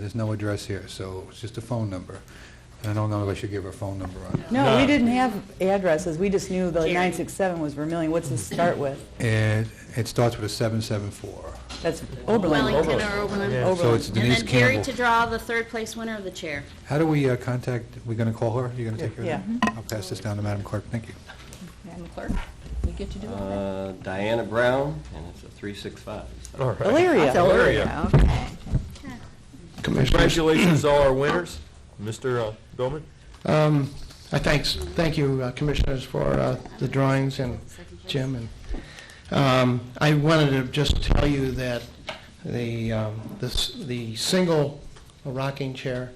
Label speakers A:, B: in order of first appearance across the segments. A: There's no address here, so it's just a phone number. I don't know if I should give her a phone number on.
B: No, we
C: No.
B: didn't have addresses, we just knew the 967 was Vermillion. What's this start with?
A: It, it starts with a 774.
B: That's Oberlin.
C: Oberlin.
D: Wellington or Oberlin.
C: Yeah.
A: So it's
D: And
A: Denise
D: then Gary
A: Campbell.
D: to draw the third place winner of the chair.
A: How do we uh, contact, we going to call her? You're going to take care
B: Yeah.
A: of that? I'll pass this down to Madam Clerk, thank you.
E: Madam Clerk, you get to do all that.
F: Uh, Diana Brown, and it's a 365. so-
C: All right.
B: Elyria.
C: Elyria.
E: Okay.
G: Commissioners,
C: Congratulations, to all our winners. Mr. uh, Billman?
G: um, I thanks, thank you, uh, Commissioners, for uh, the drawings and Jim. And um, I wanted to just tell you that the, um, this- the single rocking chair,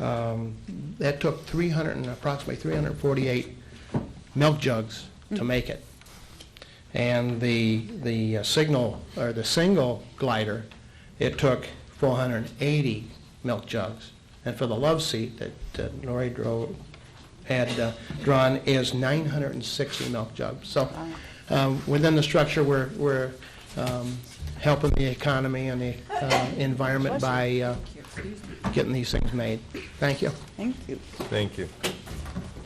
G: um, that took 300 and approximately 348 milk jugs to make it. And the, the uh, signal, or the single glider, it took 480 milk jugs. And for the love seat that uh, Lori drove, had uh, drawn is 960 milk jugs. So um, within the structure, we're, we're um, helping the economy and the uh, environment by uh, getting these things made. Thank you.
B: Thank you.
C: Thank you.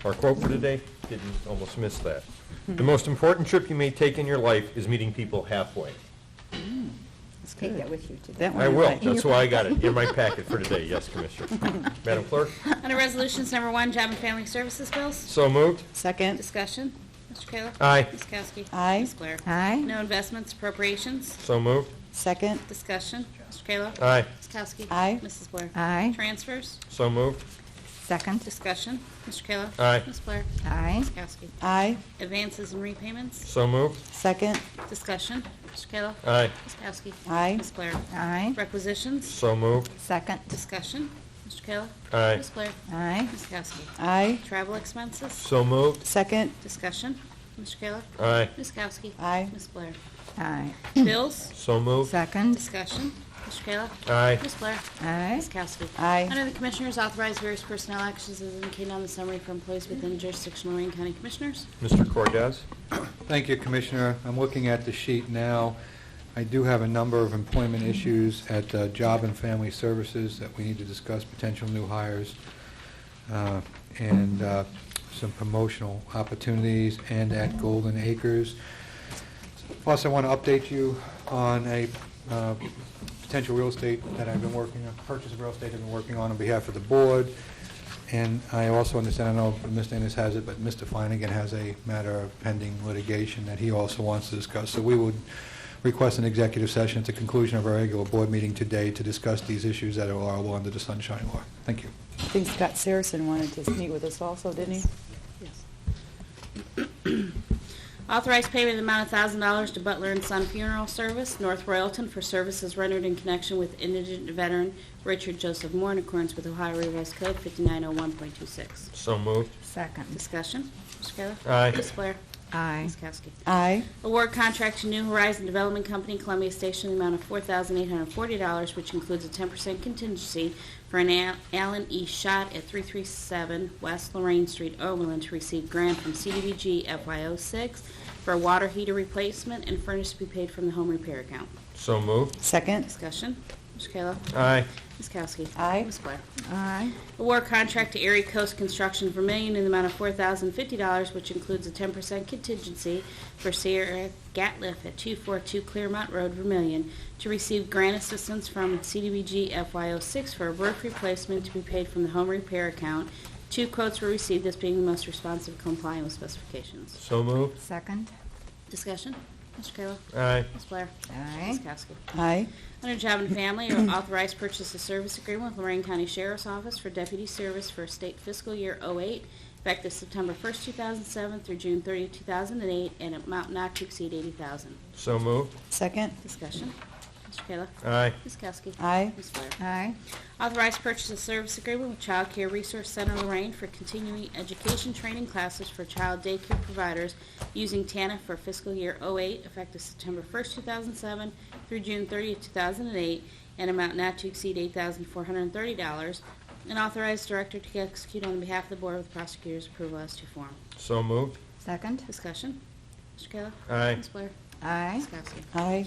C: Our quote for today, didn't, almost miss that. The most important trip you may take in your life is meeting people halfway.
E: Take that with you today.
B: That one.
C: I
B: you
C: will,
B: like.
C: that's why I got it, in my packet for today, yes, Commissioner. Madam Clerk,
D: Under Resolutions Number One, Job and Family Services Bills.
C: so moved?
B: Second,
D: Discussion. Mr. Kayla.
C: Aye.
D: Ms. Kowski.
B: Aye.
D: Ms. Blair.
E: Aye.
D: No investments, appropriations.
C: So moved?
B: second,
D: Discussion. Mr. Kayla.
C: Aye.
D: Ms. Kowski.
B: Aye.
D: Mrs. Blair.
E: Aye.
D: Transfers.
C: So moved?
E: Second.
D: Discussion. Mr. Kayla.
C: Aye.
D: Ms. Blair.
E: Aye.
D: Ms. Kowski.
B: aye,
D: Advances and repayments.
C: So moved?
B: second,
D: Discussion. Mr. Kayla.
C: Aye.
D: Ms. Kowski.
B: aye,
D: Ms. Blair.
E: Aye.
D: Requisitions.
C: So moved?
E: Second.
D: Discussion. Mr. Kayla.
C: Aye.
D: Ms. Blair.
E: Aye.
D: Ms. Kowski.
B: aye,
D: Travel expenses.
C: So moved?
B: second,
D: Discussion. Mr. Kayla.
C: Aye.
D: Ms. Kowski.
B: Aye.
D: Ms. Blair.
E: Aye.
D: Bills.
C: So moved?
E: Second.
D: Discussion. Mr. Kayla.
C: Aye.
D: Ms. Blair.
E: Aye.
D: Ms. Kowski.
B: aye,
D: Under the Commissioners, authorize various personnel actions as indicated on the summary for employees within jurisdictional Lorraine County Commissioners.
C: Mr. Cordez?
A: Thank you, Commissioner. I'm looking at the sheet now. I do have a number of employment issues at uh, Job and Family Services that we need to discuss, potential new hires, uh, and uh, some promotional opportunities, and at Golden Acres. Plus, I want to update you on a uh, potential real estate that I've been working on, purchase of real estate I've been working on on behalf of the board. And I also understand, I know Mr. Ennis has it, but Mr. Flanagan has a matter of pending litigation that he also wants to discuss. So we would request an executive session at the conclusion of our regular board meeting today to discuss these issues that are allowable under the Sunshine Law. Thank you.
B: I think Scott Saracen wanted to meet with us also, didn't he?
D: Authorize payment of the amount of thousand dollars to Butler and Son Funeral Service, North Royalton, for services rendered in connection with indigent veteran Richard Joseph Moore in accordance with Ohio Revised Code 5901.26.
C: So moved?
E: Second.
D: Discussion. Mr. Kayla.
C: Aye.
D: Ms. Blair.
E: Aye.
D: Ms. Kowski.
B: Aye,
D: Award contract to New Horizon Development Company, Columbia Station, in the amount of $4,840, which includes a 10% contingency for an Al- Allen E. Shot at 337 West Lorraine Street, Oberlin, to receive grant from CDBG FY06 for a water heater replacement and furnace to be paid from the home repair account.
C: So moved?
B: second,
D: Discussion. Mr. Kayla.
C: Aye.
D: Ms. Kowski.
B: Aye.
D: Ms. Blair.
E: Aye.
D: Award contract to Erie Coast Construction Vermillion in the amount of $4,050, which includes a 10% contingency for Sierra Gatliff at 242 Claremont Road, Vermillion, to receive grant assistance from CDBG FY06 for a roof replacement to be paid from the home repair account. Two quotes were received, this being the most responsive complying with specifications.
C: So moved?
E: Second.
D: Discussion? Mr. Kayla?
C: Aye.
D: Ms. Blair?
E: Aye.
D: Ms. Kowski?
B: aye,
D: Under Job and Family, authorized purchase of service agreement with Lorraine County Sheriff's Office for deputy service for state fiscal year '08, effective September 1st, 2007 through June 30th, 2008, and amount not to exceed 80000
C: So moved?
B: second,
D: Discussion. Mr. Kayla.
C: Aye.
D: Ms. Kowski.
B: Aye.
D: Ms. Blair.
E: Aye.
D: Authorized purchase of service agreement with Child Care Resource Center Lorraine for continuing education training classes for child daycare providers using TANF for fiscal year '08, effective September 1st, 2007 through June 30th, 2008, an amount not to exceed $8,430, and authorized director to execute on behalf of the Board with prosecutor's approval as to form.
C: So moved?
E: Second.
D: Discussion. Mr. Kayla.
C: Aye.
D: Ms. Blair.
E: Aye.
D: Ms. Kowski.
B: aye,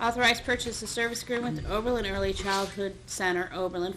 D: Authorized purchase of service agreement with Oberlin Early Childhood Center, Oberlin,